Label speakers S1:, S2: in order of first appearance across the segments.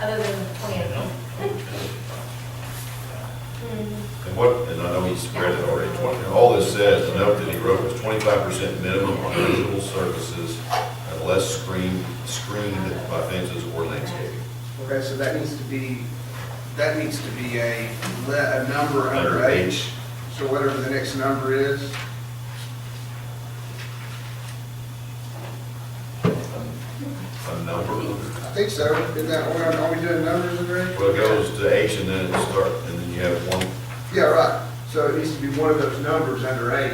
S1: other than the twentieth. Mm-hmm.
S2: And what, and I know he spread it already, twenty, all this says, the note that he wrote was twenty-five percent minimum on visual surfaces unless screened, screened by fences or landscaping.
S3: Okay, so that needs to be, that needs to be a, le- a number under H, so whatever the next number is.
S2: A number,
S3: I think so, isn't that what, I'm- are we doing numbers under H?
S2: well, it goes to H and then it starts, and then you have one,
S3: Yeah, right, so it needs to be one of those numbers under H,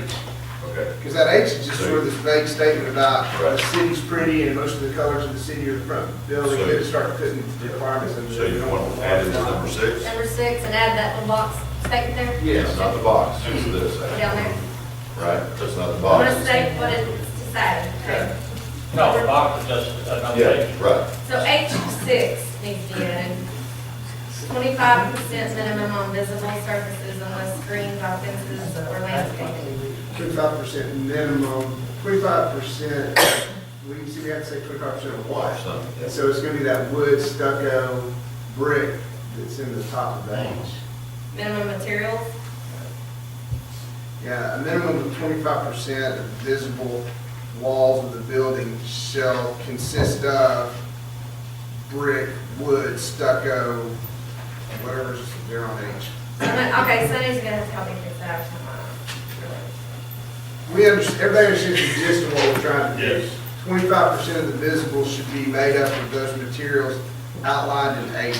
S2: okay,
S3: because that H is just sort of this vague statement about the
S2: Right.
S3: city's pretty and most of the colors of the city are the front of the building,
S2: So-
S3: they start putting requirements under.
S2: so you
S3: there.
S2: want to add it to number six?
S1: Number six, and add that little box statement there?
S3: Yes.
S2: Not the box, it's this.
S1: Down there.
S2: Right, that's not the
S1: I'm
S2: box.
S1: gonna state what it's decided, okay?
S4: No, the box is just uh, another thing.
S2: Yeah, right.
S1: So H six needs to be added. Twenty-five percent minimum on visible surfaces unless screened by fences or landscaping.
S3: Twenty-five percent minimum, twenty-five percent, we can see, we have to say twenty-five percent of what?
S2: Something, yeah.
S3: And so it's gonna be that wood stucco brick that's in the top of that.
S1: Minimum materials,
S3: Yeah, a minimum of twenty-five percent of visible walls of the building shall consist of brick, wood, stucco, whatever's there on H.
S1: Someone- okay, Sunny's gonna have to help me fix that out tomorrow.
S3: We understand, everybody understands the gist of what we're trying to do.
S4: Yes.
S3: Twenty-five percent of the visible should be made up of those materials outlined in H.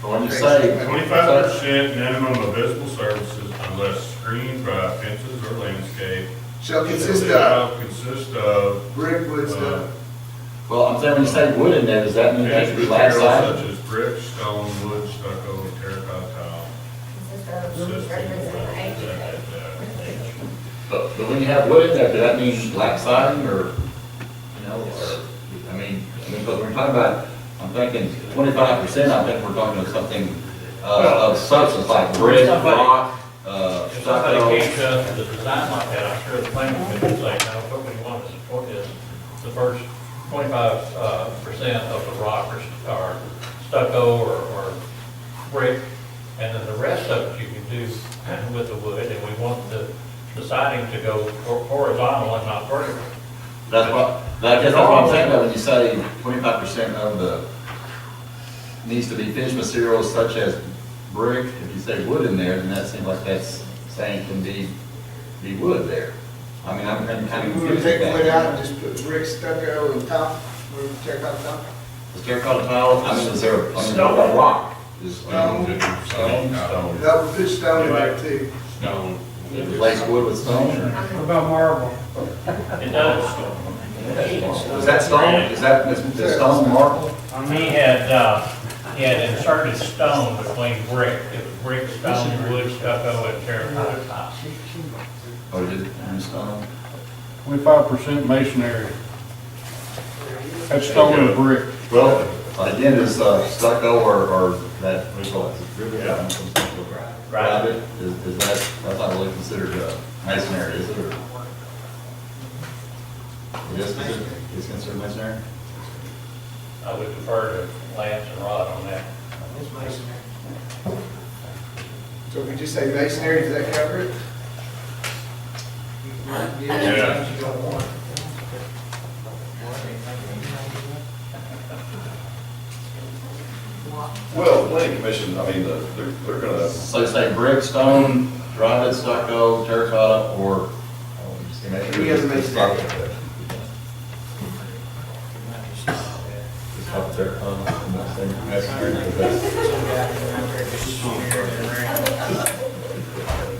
S5: When you say,
S6: Twenty-five percent minimum of visible services unless screened by fences or landscape.
S3: Shall consist of
S6: Shall Consist of.
S3: brick, wood, stucco.
S5: well, I'm saying when you say wood in there, does that mean that should be
S6: Materials
S5: glass sided?
S6: such as brick, stone, wood, stucco, and terracotta tile.
S1: Consist of
S6: consisting of
S1: reference in H.
S6: that, that, that.
S5: But, but when you have wood in there, does that mean black siding or, you know, or, I mean, I mean, because we're talking about, I'm thinking twenty-five percent, I think we're talking about something, uh, of substance like brick, rock, uh,
S4: If somebody
S5: stucco.
S4: came to us with a design like that, I'm sure the planning commission would say, no, what we want to support is the first twenty-five, uh, percent of the rock or st- or stucco or, or brick, and then the rest of it you can do with the wood, and we want the, the siding to go hor- horizontal and not vertical.
S5: That's what, that- that's what I'm saying about when you say twenty-five percent of the, needs to be finished materials such as brick, if you say wood in there, then that seems like that's saying can be, be wood there. I mean, I'm I'm kind of
S3: We would
S5: confused
S3: take
S5: with
S3: wood
S5: that.
S3: out and just put brick, stucco, and top, we would check out top.
S5: Is terracotta tile, I mean, is there, I mean,
S4: Stone.
S5: a rock? Is
S3: Stone.
S5: Stone,
S3: That would put stone there too.
S5: stone. Replace wood with stone?
S7: What about marble?
S4: It does,
S5: Is that stone? Is that, is is stone marble?
S4: He had, uh, he had inserted stone between brick, it was brick, stone, wood, stucco, and terracotta tile.
S5: Or is it um, stone?
S7: Twenty-five percent masonry. That's stone and brick.
S5: Well, again, it's uh, stucco or, or that, what do you call it?
S6: Yeah.
S5: Rabbit, is, is that, that's not really considered uh, masonry, is it, or? It is considered, it's considered masonry?
S4: I would defer to Lance and Rod on that.
S3: So if we just say masonry, does that cover it?
S6: Yeah.
S2: Well, planning commission, I mean, the- they're, they're gonna,
S5: So say brick, stone, rabbit, stucco, terracotta, or? oh, just say masonry.
S3: He has a masonry.
S5: Just have terracotta, I'm not saying masonry, but that's-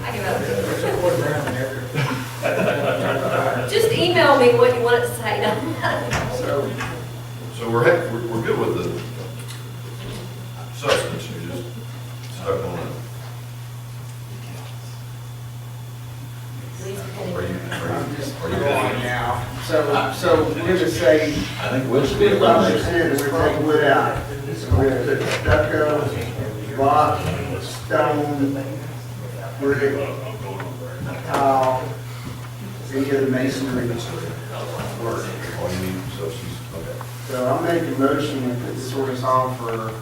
S1: I give up. Just email me what you want it to say,
S3: So,
S2: so we're, hap- we're, we're good with the substance, you're just stuck on it. Are you, are
S3: I'm just
S2: you, are
S3: going
S2: you busy?
S3: now. So, so we're gonna say
S5: I think wood should be
S3: twenty-five
S5: eliminated.
S3: percent, we're gonna take wood out. So we're gonna put stucco, rock, stone, brick, tile, any other masonry.
S2: All you need, so she's, okay.
S3: So I'll make a motion, we put this ordinance on for